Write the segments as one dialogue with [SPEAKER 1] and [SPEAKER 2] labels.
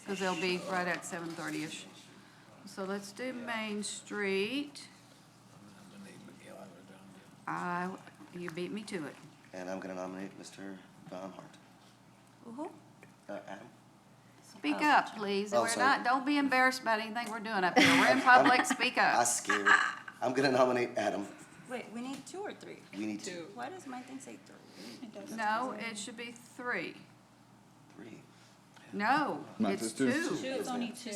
[SPEAKER 1] because they'll be right at seven thirty-ish. So let's do Main Street. I, you beat me to it.
[SPEAKER 2] And I'm gonna nominate Mr. Von Hart. Uh, Adam?
[SPEAKER 1] Speak up, please.
[SPEAKER 2] Oh,
[SPEAKER 1] We're
[SPEAKER 2] sorry.
[SPEAKER 1] not, don't be embarrassed about anything we're doing up here. We're in
[SPEAKER 2] I'm-
[SPEAKER 1] public, speak
[SPEAKER 2] I
[SPEAKER 1] up.
[SPEAKER 2] scared. I'm gonna nominate Adam.
[SPEAKER 3] Wait, we need two or three?
[SPEAKER 2] We need two,
[SPEAKER 3] Why does my thing say three?
[SPEAKER 1] No, it should be three.
[SPEAKER 2] three.
[SPEAKER 1] No,
[SPEAKER 4] No,
[SPEAKER 1] it's
[SPEAKER 4] it's two.
[SPEAKER 1] two.
[SPEAKER 5] It's only two.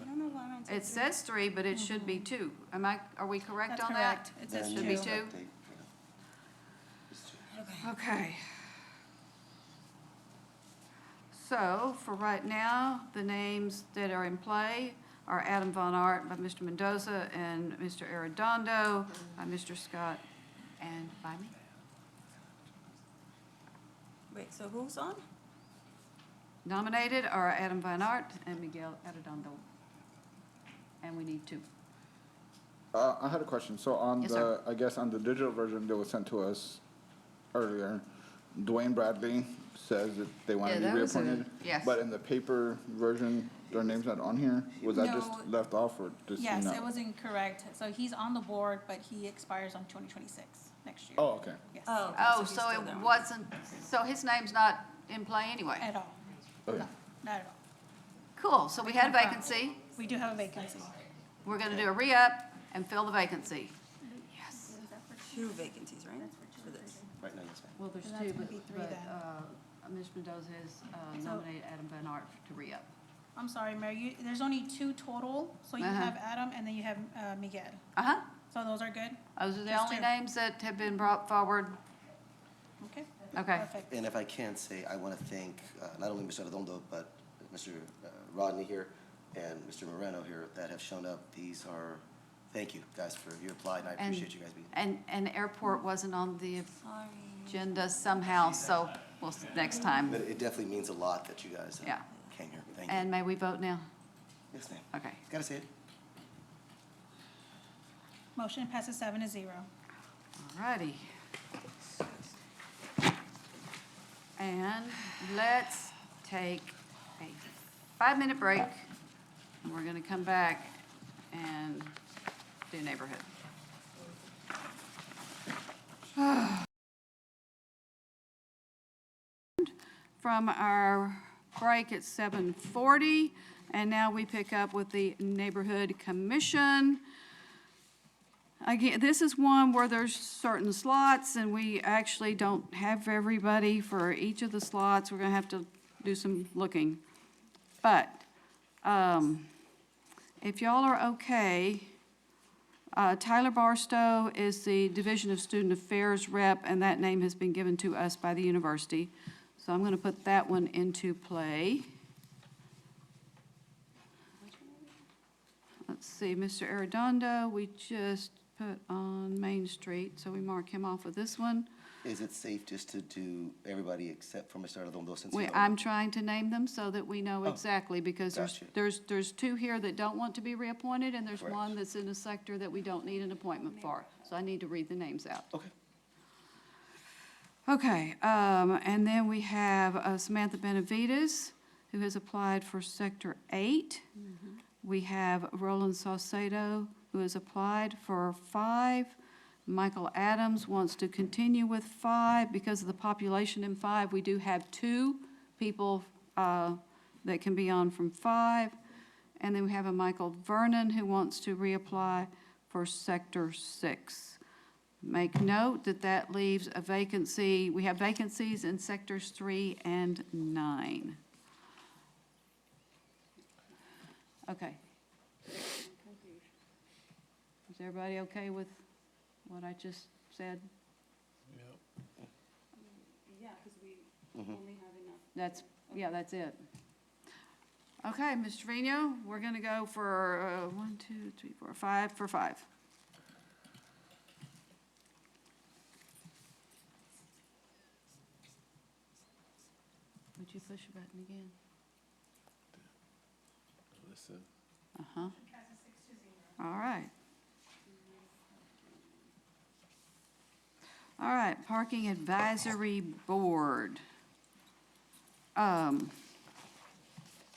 [SPEAKER 3] I don't know why mine
[SPEAKER 1] It
[SPEAKER 3] says three.
[SPEAKER 1] says three, but it should be two. Am I, are we correct
[SPEAKER 5] That's
[SPEAKER 1] on that?
[SPEAKER 5] correct. It says
[SPEAKER 2] Then
[SPEAKER 1] Should
[SPEAKER 2] you
[SPEAKER 1] be
[SPEAKER 2] just
[SPEAKER 1] two.
[SPEAKER 2] update, yeah. It's two.
[SPEAKER 1] Okay. So for right now, the names that are in play are Adam Von Art by Mr. Mendoza and Mr. Arredondo by Mr. Scott and by me.
[SPEAKER 3] Wait, so who's on?
[SPEAKER 1] Nominated are Adam Von Art and Miguel Arredondo. And we need two.
[SPEAKER 4] Uh, I had a question. So on
[SPEAKER 1] Yes,
[SPEAKER 4] the,
[SPEAKER 1] sir.
[SPEAKER 4] I guess on the digital version that was sent to us earlier, Dwayne Bradley says that they want
[SPEAKER 1] Yeah,
[SPEAKER 4] to be
[SPEAKER 1] that was a-
[SPEAKER 4] reappointed.
[SPEAKER 1] yes.
[SPEAKER 4] But in the paper version, their name's not on here. Was that just
[SPEAKER 5] No.
[SPEAKER 4] left off or just not?
[SPEAKER 5] Yes, it was incorrect. So he's on the board, but he expires on twenty twenty-six, next year.
[SPEAKER 4] Oh, okay.
[SPEAKER 5] Yes.
[SPEAKER 3] Oh.
[SPEAKER 1] Oh,
[SPEAKER 3] he's
[SPEAKER 1] so
[SPEAKER 3] still
[SPEAKER 1] it
[SPEAKER 3] there.
[SPEAKER 1] wasn't, so his name's not in play anyway.
[SPEAKER 5] At all.
[SPEAKER 4] Okay.
[SPEAKER 5] Not at all.
[SPEAKER 1] Cool, so we had a vacancy.
[SPEAKER 5] We do have a vacancy.
[SPEAKER 1] We're gonna do a re-up and fill the vacancy. Yes.
[SPEAKER 3] Two vacancies, right? For this.
[SPEAKER 2] Right now, yes, ma'am.
[SPEAKER 1] Well, there's
[SPEAKER 5] So that's
[SPEAKER 1] two,
[SPEAKER 5] gonna
[SPEAKER 1] but,
[SPEAKER 5] be three
[SPEAKER 1] but,
[SPEAKER 5] then.
[SPEAKER 1] uh, Ms. Mendoza has uh,
[SPEAKER 5] So-
[SPEAKER 1] nominated Adam Van Art to re-up.
[SPEAKER 5] I'm sorry, Mayor, you, there's only two total. So you
[SPEAKER 1] Uh-huh.
[SPEAKER 5] have Adam and then you have, uh, Miguel.
[SPEAKER 1] Uh-huh,
[SPEAKER 5] So those are good?
[SPEAKER 1] those are the
[SPEAKER 5] Just
[SPEAKER 1] only
[SPEAKER 5] two.
[SPEAKER 1] names that have been brought forward.
[SPEAKER 5] Okay?
[SPEAKER 1] Okay.
[SPEAKER 5] Perfect.
[SPEAKER 2] And if I can say, I want to thank uh, not only Mr. Arredondo, but Mr. uh, Rodney here and Mr. Moreno here that have shown up. These are, thank you guys for your applied, and I
[SPEAKER 1] And-
[SPEAKER 2] appreciate you guys being.
[SPEAKER 1] And, and airport wasn't on the
[SPEAKER 3] Sorry.
[SPEAKER 1] agenda somehow, so we'll, s- next time.
[SPEAKER 2] But it definitely means a lot that you guys uh,
[SPEAKER 1] Yeah.
[SPEAKER 2] came here. Thank you.
[SPEAKER 1] And may we vote now?
[SPEAKER 2] Yes, ma'am.
[SPEAKER 1] Okay.
[SPEAKER 2] Gotta say it.
[SPEAKER 5] Motion passes seven to zero.
[SPEAKER 1] Alrighty. And let's take a five-minute break. And we're gonna come back and do neighborhood. From our break at seven forty, and now we pick up with the Neighborhood Commission. Again, this is one where there's certain slots, and we actually don't have everybody for each of the slots. We're gonna have to do some looking. But, um, if y'all are okay, uh, Tyler Barstow is the Division of Student Affairs rep, and that name has been given to us by the university. So I'm gonna put that one into play. Let's see, Mr. Arredondo, we just put on Main Street, so we mark him off with this one.
[SPEAKER 2] Is it safe just to do everybody except for Mr. Arredondo since
[SPEAKER 1] We,
[SPEAKER 2] he's
[SPEAKER 1] I'm
[SPEAKER 2] on?
[SPEAKER 1] trying to name them so that we know exactly, because there's,
[SPEAKER 2] Oh, Gotcha.
[SPEAKER 1] there's, there's two here that don't want to be reappointed, and there's
[SPEAKER 2] Correct.
[SPEAKER 1] one that's in a sector that we don't need an appointment for. So I need to read the names out.
[SPEAKER 2] Okay.
[SPEAKER 1] Okay, um, and then we have uh, Samantha Benavides, who has applied for Sector Eight. We have Roland Saucedo, who has applied for five. Michael Adams wants to continue with five. Because of the population in five, we do have two people, uh, that can be on from five. And then we have a Michael Vernon who wants to reapply for Sector Six. Make note that that leaves a vacancy, we have vacancies in sectors three and nine. Okay. Is everybody okay with what I just said? Yeah, because we only have enough. That's, yeah, that's it. Okay, Ms. Trevino, we're going to go for uh, one, two, three, four, five, for five. Would you push a button again? Uh-huh. All right. All right, Parking Advisory Board. Um,